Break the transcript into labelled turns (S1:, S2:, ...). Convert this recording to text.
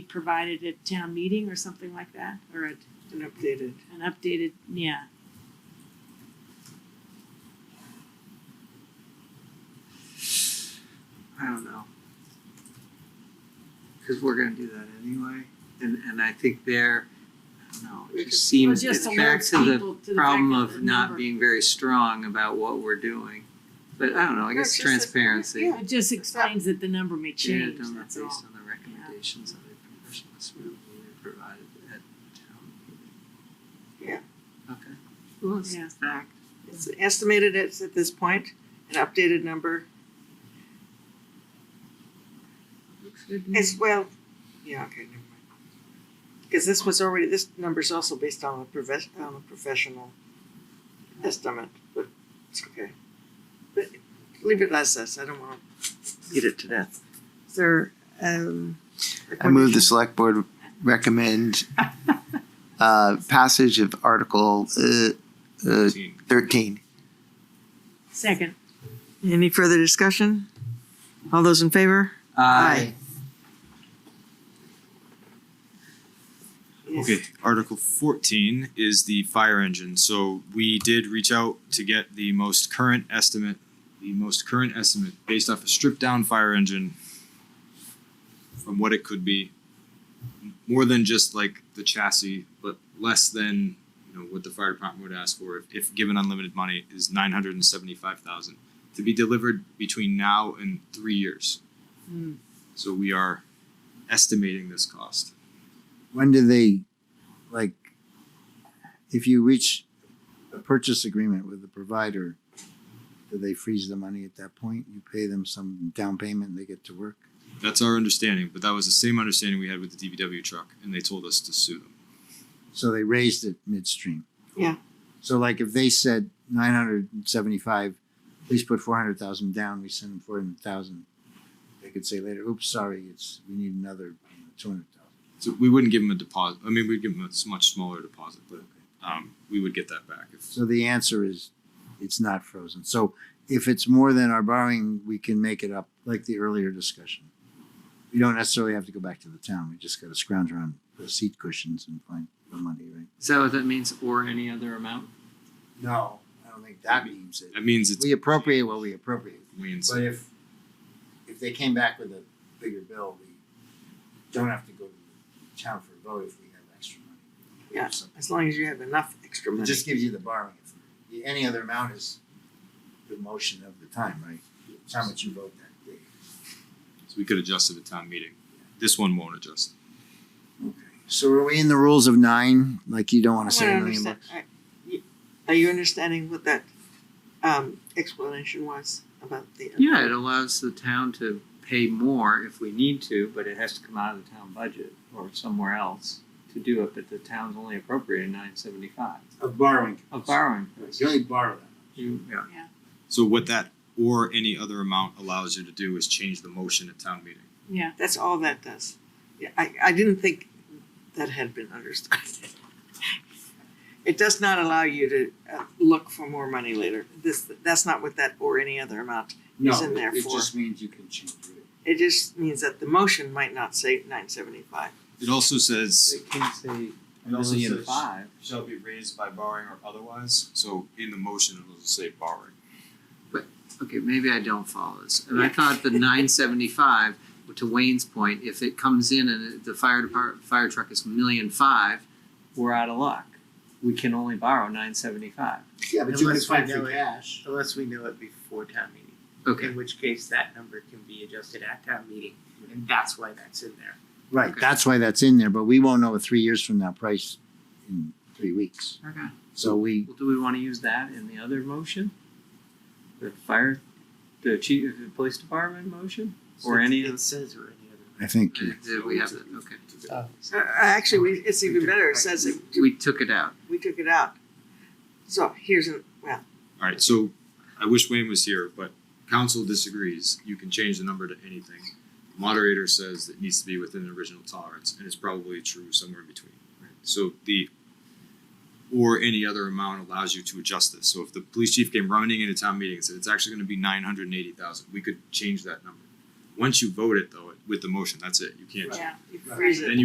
S1: provided at town meeting or something like that, or at
S2: and updated.
S1: an updated, yeah.
S2: I don't know. Cause we're gonna do that anyway, and, and I think there, I don't know,
S3: We
S2: it
S3: could-
S2: just
S1: Well,
S2: seems,
S1: just
S2: it's back
S1: alerts
S2: to the
S1: people to the fact
S2: problem
S1: that
S2: of
S1: the
S2: not
S1: number-
S2: being very strong about what we're doing. But I don't know, I
S3: No,
S2: guess
S3: it's just that-
S2: transparency.
S3: yeah.
S1: It just explains that the number may change,
S2: Data done
S1: that's all.
S2: based on the recommendations of a professional survey provided at town meeting. Yeah. Okay. Well, it's
S1: Yeah.
S2: fact.
S3: It's estimated it's at this point, an updated number
S2: Looks good to me.
S3: as well. Yeah, okay, never mind. Because this was already, this number's also based on a profes- on a professional estimate, but it's okay. But leave it as this, I don't wanna beat it to death. Is there, um.
S4: I move the select board recommend uh, passage of Article uh, uh, thirteen.
S1: Second,
S3: Any further discussion? All those in favor?
S2: Uh, Aye.
S3: Yes.
S5: Uh, Okay, Article fourteen is the fire engine, so we did reach out to get the most current estimate, the most current estimate based off a stripped down fire engine from what it could be, more than just like the chassis, but less than, you know, what the fire department would ask for if, if given unlimited money is nine hundred and seventy-five thousand to be delivered between now and three years.
S1: Hmm.
S5: So we are estimating this cost.
S4: When do they, like, if you reach a purchase agreement with the provider, do they freeze the money at that point? You pay them some down payment, they get to work?
S5: That's our understanding, but that was the same understanding we had with the DVW truck, and they told us to sue them.
S4: So they raised it midstream.
S3: Yeah.
S4: So like if they said nine hundred and seventy-five, please put four hundred thousand down, we send them four hundred thousand. They could say later, oops, sorry, it's, we need another two hundred thousand.
S5: So we wouldn't give them a deposit. I mean, we'd give them a s- much smaller deposit, but um, we would get that back. If,
S4: So the answer is, it's not frozen. So if it's more than our borrowing, we can make it up, like the earlier discussion. We don't necessarily have to go back to the town, we just gotta scrounge around the seat cushions and find the money, right?
S2: Is that what that means, or any other amount?
S4: No, I don't think that means it.
S5: that means it's
S4: We appropriate what we appropriate.
S5: means
S4: But if, if they came back with a bigger bill, we don't have to go to the town for a vote if we have extra money.
S3: Yeah.
S4: So
S3: As long as you have enough extra
S4: It
S3: money.
S4: just gives you the borrowing. authority. Any other amount is the motion of the time, right? It's how much you vote that day.
S5: so we could adjust it at town meeting. This one won't adjust.
S4: So are we in the rules of nine? Like you don't
S3: Oh, I
S4: wanna
S3: wanna
S4: say a million
S3: understand-
S4: bucks?
S3: I- you- Are you understanding what that um explanation was about the?
S2: Yeah, it allows the town to pay more if we need to, but it has to come out of the town budget or somewhere else to do it, but the town's only appropriated nine seventy-five
S4: Of borrowing.
S2: of borrowing.
S4: You only borrow that.
S2: You, yeah.
S5: So what that or any other amount allows you to do is change the motion at town meeting.
S1: yeah,
S3: That's all that does. Yeah, I I didn't think that had been understood. It does not allow you to uh look for more money later. This, that's not what that or any other amount. No, It's in there
S4: It
S3: for-
S4: just means you can change it.
S3: It just means that the motion might not say nine seventy-five.
S5: It also says
S2: It can say
S5: It also
S2: million
S5: says-
S2: five.
S5: shall be raised by borrowing or otherwise. So in the motion, it'll just say borrowing.
S2: Okay, maybe I don't follow this. And I
S3: Yeah.
S2: thought the nine seventy-five, to Wayne's point, if it comes in and the fire department, fire truck is million five, we're out of luck. We can only borrow nine seventy-five.
S4: Yeah,
S6: but you Unless can find we free know it.
S4: cash.
S6: Unless we know it before town meeting,
S2: Okay,
S6: in which case that number can be adjusted at town meeting, and that's why that's in there.
S4: Right,
S2: Okay.
S4: that's why that's in there, but we won't know three years from now price in three weeks.
S2: okay.
S4: So we,
S6: Well, do we wanna use that in the other motion? The fire, the chief, the police department motion, or any of? It says or any other.
S4: I think, uh,
S2: Did we have that? Okay.
S3: So uh, actually, we, it's even better. It says it,
S2: We took it out.
S3: we took it out. So here's an, well,
S5: All right, so I wish Wayne was here, but council disagrees. You can change the number to anything. Moderator says it needs to be within the original tolerance, and it's probably true somewhere in between. right? So the or any other amount allows you to adjust this. So if the police chief came running into town meeting and said it's actually going to be nine hundred and eighty thousand, we could change that number. Once you vote it though, with the motion, that's it. You can't.
S1: yeah.
S3: you freeze it.
S5: Then